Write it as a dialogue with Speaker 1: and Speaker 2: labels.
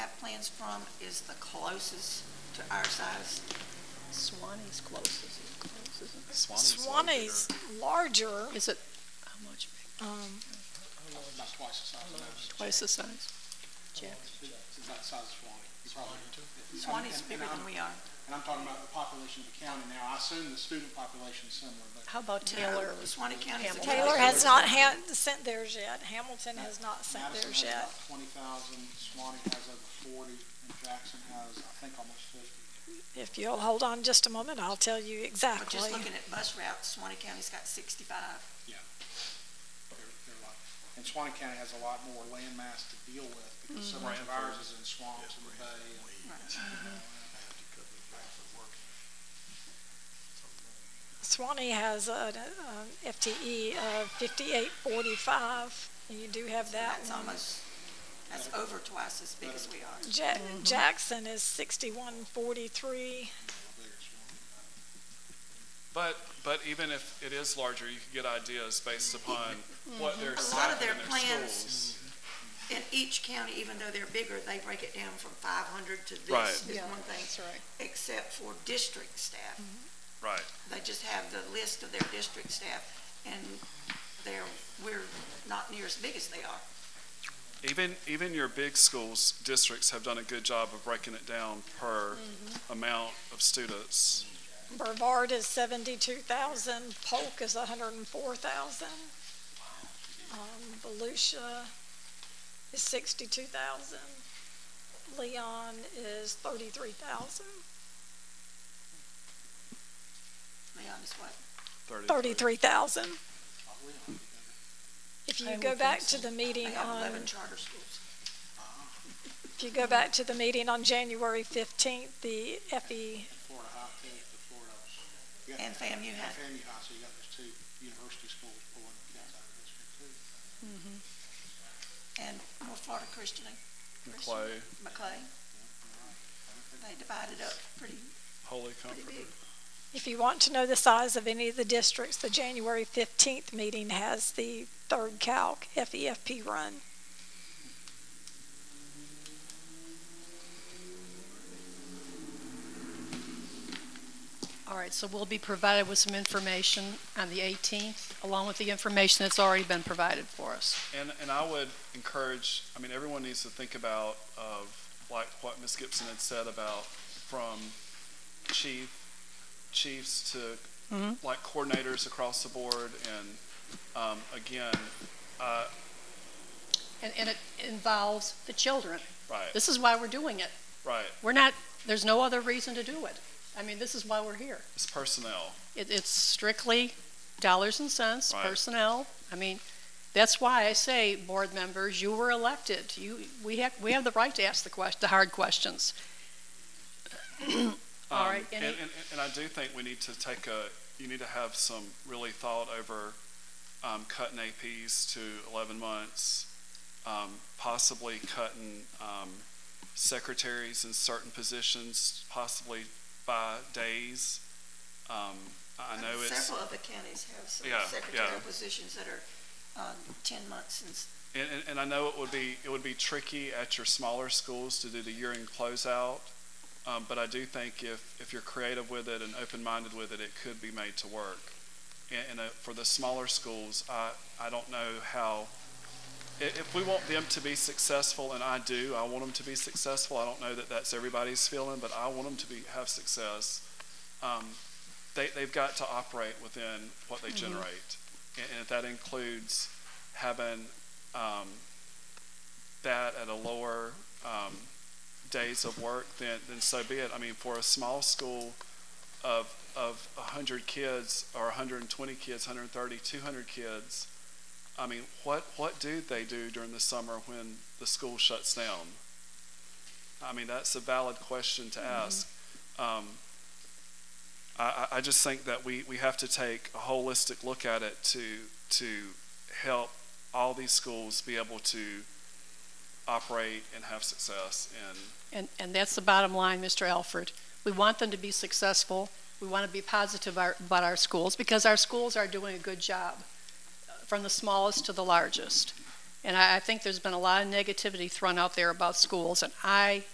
Speaker 1: Swanlands from is the closest to our size.
Speaker 2: Swanee's closest, is close, isn't it?
Speaker 3: Swanee's larger.
Speaker 4: Swanee's larger,
Speaker 2: Is it, how much, big?
Speaker 4: um,
Speaker 3: About twice the size of ours.
Speaker 2: twice the size? Jeff?
Speaker 3: It's about the size of Swanee. Probably. And-
Speaker 1: Swanee's
Speaker 3: and-
Speaker 1: bigger
Speaker 3: and
Speaker 1: than
Speaker 3: I'm-
Speaker 1: we are.
Speaker 3: And I'm talking about the population of the county now. I assume the student population is similar, but
Speaker 2: How about Taylor?
Speaker 1: No, Swanee County's. the
Speaker 2: Hamilton.
Speaker 4: Taylor has not ha- sent theirs yet, Hamilton has not sent
Speaker 3: Madison
Speaker 4: theirs
Speaker 3: has
Speaker 4: yet.
Speaker 3: about twenty thousand, Swanee has over forty, and Jackson has, I think, almost fifty.
Speaker 4: If you'll hold on just a moment, I'll tell you
Speaker 1: But
Speaker 4: exactly.
Speaker 1: just looking at bus routes, Swanee County's got sixty-five.
Speaker 3: They're- they're like- And Swanee County has a lot more land mass to deal with because so much of ours is in swamps and bay. and-
Speaker 4: Swanee has an um, FTE of fifty-eight forty-five, and you do have that
Speaker 1: That's
Speaker 4: one.
Speaker 1: almost, that's over twice as big as we are.
Speaker 4: Ja- Jackson is sixty-one forty-three.
Speaker 5: But, but even if it is larger, you could get ideas based upon what they're
Speaker 1: Mm-hmm. A lot of
Speaker 5: staffing
Speaker 1: their
Speaker 5: in their
Speaker 1: plans-
Speaker 5: schools.
Speaker 1: In each county, even though they're bigger, they break it down from five hundred to
Speaker 5: Right.
Speaker 1: this is one
Speaker 2: That's
Speaker 1: thing,
Speaker 2: right.
Speaker 1: except for district staff. Mm-hmm.
Speaker 5: Right.
Speaker 1: They just have the list of their district staff, and they're, we're not near as big as they are.
Speaker 5: Even, even your big schools, districts have done a good job of breaking it down per
Speaker 1: Mm-hmm.
Speaker 5: amount of students.
Speaker 4: Brevard is seventy-two thousand, Polk is hundred and four thousand. Um, Volusia is sixty-two thousand. Leon is thirty-three thousand.
Speaker 1: Leon is what?
Speaker 4: Thirty-three thousand. If you
Speaker 2: I
Speaker 4: go
Speaker 2: would
Speaker 4: back
Speaker 2: think
Speaker 4: to the
Speaker 1: They
Speaker 4: meeting
Speaker 1: have
Speaker 4: on,
Speaker 1: eleven charter schools.
Speaker 4: if you go back to the meeting on January fifteenth, the E, FE,
Speaker 3: Florida High Tech, the Florida. you got-
Speaker 1: And FAMU had-
Speaker 3: FAMU High, so you got those two university schools pulling kids out of the district too.
Speaker 1: And North Florida Christian,
Speaker 5: McClay,
Speaker 1: McLean, they divided up pretty,
Speaker 5: Holy
Speaker 1: pretty
Speaker 5: Comfort.
Speaker 1: big.
Speaker 4: if you want to know the size of any of the districts, the January fifteenth meeting has the third calc FEFP run.
Speaker 2: All right, so we'll be provided with some information on the 18th, along with the information that's already been provided for us.
Speaker 5: And, and I would encourage, I mean, everyone needs to think about of like what Ms. Gibson had said about from chief, chiefs to
Speaker 2: Mhm.
Speaker 5: like coordinators across the board. And, um, again, uh,
Speaker 2: And, and it involves the children.
Speaker 5: right,
Speaker 2: This is why we're doing it.
Speaker 5: right.
Speaker 2: We're not, there's no other reason to do it. I mean, this is why we're here.
Speaker 5: It's personnel.
Speaker 2: It, it's strictly dollars and cents,
Speaker 5: Right.
Speaker 2: personnel. I mean, that's why I say, board members, you were elected. You, we have, we have the right to ask the quest, the hard questions. All
Speaker 5: Um,
Speaker 2: right,
Speaker 5: And,
Speaker 2: any-
Speaker 5: and, and I do think we need to take a, you need to have some really thought over, um, cutting APs to eleven months. Um, possibly cutting, um, secretaries in certain positions, possibly by days. Um, I I know it's,
Speaker 1: Several of the counties have some
Speaker 5: Yeah,
Speaker 1: secretarial
Speaker 5: yeah.
Speaker 1: positions that are, uh, ten months and
Speaker 5: and, and- and I know it would be, it would be tricky at your smaller schools to do the year-end closeout. Um, but I do think if, if you're creative with it and open-minded with it, it could be made to work. And, and uh, for the smaller schools, I, I don't know how, i- if we want them to be successful, and I do, I want them to be successful. I don't know that that's everybody's feeling, but I want them to be, have success. Um, they, they've got to operate within what they generate. And, and if that includes having, um, that at a lower, um, days of work, then, then so be it. I mean, for a small school of, of 100 kids or 120 kids, 130, 200 kids, I mean, what, what do they do during the summer when the school shuts down? I mean, that's a valid question to ask. Um, I, I I just think that we, we have to take a holistic look at it to, to help all these schools be able to operate and have success and
Speaker 2: And, and that's the bottom line, Mr. Alford. We want them to be successful. We want to be positive our- about our schools because our schools are doing a good job, uh, from the smallest to the largest. And I, I think there's been a lot of negativity thrown out there about schools, and I